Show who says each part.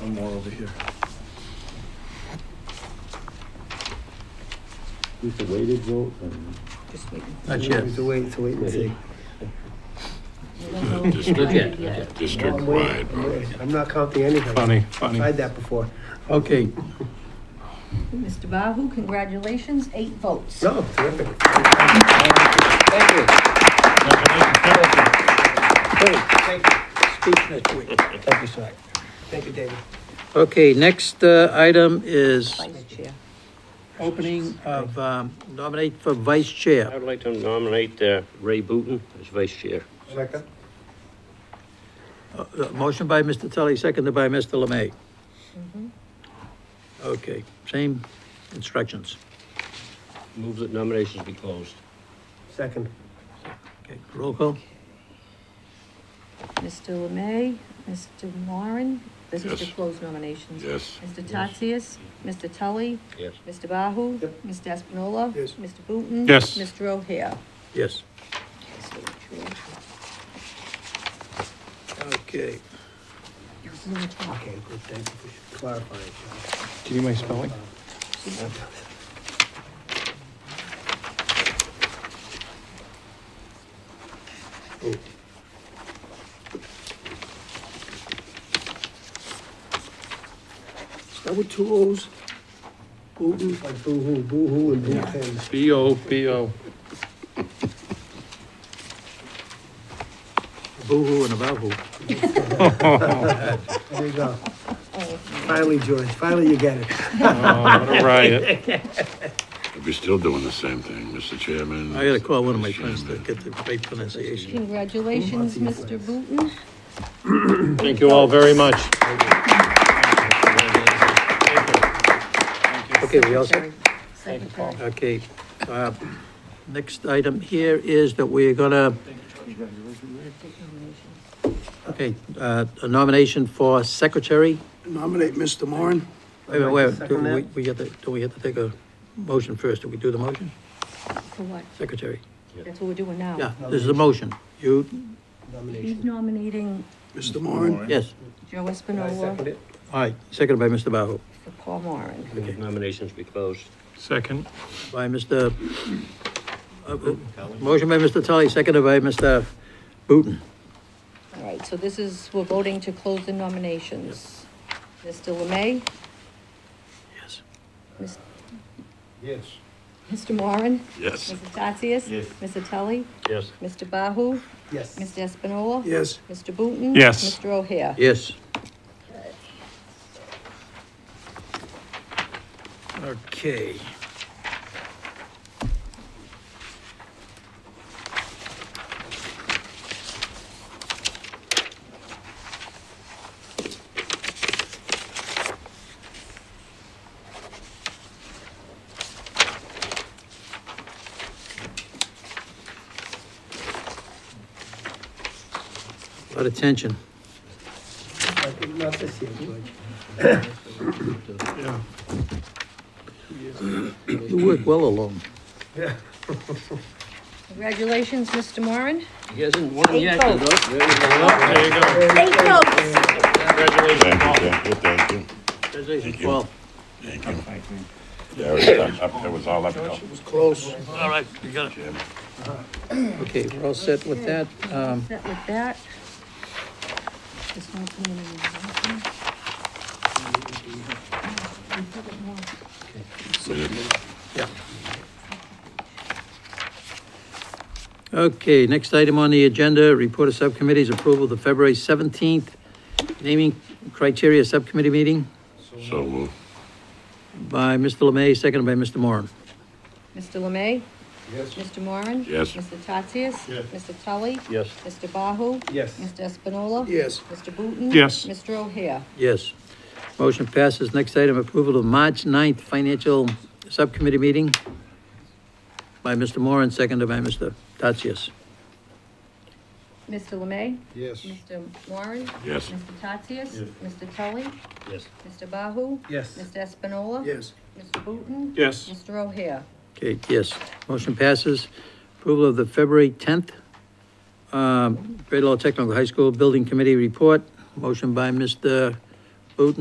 Speaker 1: One more over here.
Speaker 2: It's a weighted vote and.
Speaker 3: Just waiting.
Speaker 4: Not yet.
Speaker 5: To wait, to wait and see.
Speaker 4: Not
Speaker 3: Yeah.
Speaker 4: yet, not yet.
Speaker 5: I'm waiting,
Speaker 6: District-wide
Speaker 5: I'm
Speaker 6: vote.
Speaker 5: waiting. I'm not counting anything.
Speaker 4: Funny, funny.
Speaker 5: Tried that before.
Speaker 4: Okay,
Speaker 3: Mr. Bahu, congratulations, eight votes.
Speaker 5: No, terrific.
Speaker 4: speak next week. Thank you, sir.
Speaker 5: Thank you, David.
Speaker 4: Okay, next uh, item is
Speaker 3: Vice Chair.
Speaker 4: opening
Speaker 5: Uh,
Speaker 4: of um, nominate for vice chair.
Speaker 7: I'd like to nominate uh, Ray Booton as vice chair.
Speaker 5: Second?
Speaker 4: Uh, Motion by Mr. Tully, seconded by Mr. Lemay. Mm-hmm. Okay, same instructions.
Speaker 7: Move that nominations be closed.
Speaker 5: Second.
Speaker 4: Okay, roll call?
Speaker 3: Mr. Lemay, Mr. Moran, this is to
Speaker 6: Yes.
Speaker 3: close nominations.
Speaker 6: Yes.
Speaker 3: Mr. Tatsias, Mr. Tully,
Speaker 7: Yes.
Speaker 3: Mr. Bahu,
Speaker 5: Yep.
Speaker 3: Mr. Espinola.
Speaker 5: Yes.
Speaker 3: Mr. Booton.
Speaker 6: Yes.
Speaker 3: Mr. O'Hare.
Speaker 4: Yes. Okay.
Speaker 5: Okay, good, thank you for clarifying.
Speaker 4: Do you need my spelling?
Speaker 5: That with two O's? Boo-hoo. Like boo-hoo, boo-hoo and boo-pin.
Speaker 4: B-O, B-O. Boo-hoo and a boo-hoo.
Speaker 5: There you go. Finally, George, finally you get it.
Speaker 6: We're still doing the same thing, Mr. Chairman.
Speaker 4: I gotta call one of my friends to get the right pronunciation.
Speaker 3: Congratulations, Mr. Booton.
Speaker 7: Thank you all very much.
Speaker 4: Okay, we also,
Speaker 3: Secretary.
Speaker 4: okay. uh, Next item here is that we're gonna, okay, uh, a nomination for secretary.
Speaker 5: Nominate Mr. Moran.
Speaker 4: Wait, wait, wait, do we, we have to, do we have to take a motion first? Do we do the motion?
Speaker 3: For what?
Speaker 4: Secretary?
Speaker 3: That's what we're doing now.
Speaker 4: Yeah, this is a motion. You,
Speaker 3: He's
Speaker 5: Nomination.
Speaker 3: nominating
Speaker 5: Mr. Moran.
Speaker 4: yes,
Speaker 3: Joe
Speaker 5: I
Speaker 3: Espinola
Speaker 5: second it.
Speaker 4: all right, seconded by Mr. Bahu.
Speaker 3: for Paul Moran.
Speaker 7: Move Nominations be closed.
Speaker 8: Second.
Speaker 4: by Mr., uh, uh, motion by Mr. Tully, seconded by Mr. Booton.
Speaker 3: All right, so this is, we're voting to close the nominations. Mr. Lemay,
Speaker 4: Yes.
Speaker 2: Yes.
Speaker 3: Mr. Moran,
Speaker 6: Yes.
Speaker 3: Mr. Tatsias. Yes. Mr. Tully,
Speaker 7: Yes.
Speaker 3: Mr. Bahu,
Speaker 5: Yes.
Speaker 3: Mr. Espinola.
Speaker 5: Yes.
Speaker 3: Mr. Booton.
Speaker 8: Yes.
Speaker 3: Mr. O'Hare.
Speaker 4: Yes. Okay. A lot of tension.
Speaker 5: Not this year, George.
Speaker 4: You work well alone.
Speaker 3: Congratulations, Mr. Moran.
Speaker 7: He hasn't won
Speaker 3: Eight
Speaker 7: yet. you know.
Speaker 3: votes.
Speaker 8: There you go.
Speaker 3: Eight votes.
Speaker 6: Thank
Speaker 8: Congratulations,
Speaker 6: you,
Speaker 8: Paul.
Speaker 6: thank you, thank you.
Speaker 4: Congratulations,
Speaker 6: you.
Speaker 4: Paul.
Speaker 6: Thank you. Yeah, it was up- it was all uphill.
Speaker 8: All right, you got it.
Speaker 4: Okay, we're all set with that. Um,
Speaker 3: Set with that. Just want to come in and- We put it more-
Speaker 4: yeah. Okay, next item on the agenda, report of subcommittees, approval of the February 17th naming criteria subcommittee meeting
Speaker 6: So moved.
Speaker 4: by Mr. Lemay, seconded by Mr. Moran.
Speaker 3: Mr. Lemay? Yes. Mr. Moran?
Speaker 6: Yes.
Speaker 3: Mr. Tatsias? Yes. Mr. Tully?
Speaker 7: Yes.
Speaker 3: Mr. Bahu?
Speaker 5: Yes.
Speaker 3: Mr. Espinola?
Speaker 5: Yes.
Speaker 3: Mr. Booton?
Speaker 8: Yes.
Speaker 3: Mr. O'Hare?
Speaker 4: Yes. Motion passes. Next item, approval of March 9th financial subcommittee meeting by Mr. Moran, seconded by Mr. Tatsias.
Speaker 3: Mr. Lemay?
Speaker 2: Yes.
Speaker 3: Mr. Moran?
Speaker 6: Yes.
Speaker 3: Mr. Tatsias? Mr. Tully?
Speaker 7: Yes.
Speaker 3: Mr. Bahu?
Speaker 5: Yes.
Speaker 3: Mr. Espinola?
Speaker 5: Yes.
Speaker 3: Mr. Booton?
Speaker 8: Yes.
Speaker 3: Mr. O'Hare?
Speaker 4: Okay, yes. Motion passes. Approval of the February uh, 10th um, Great Law Technical High School Building Committee Report. Motion by Mr. Booton,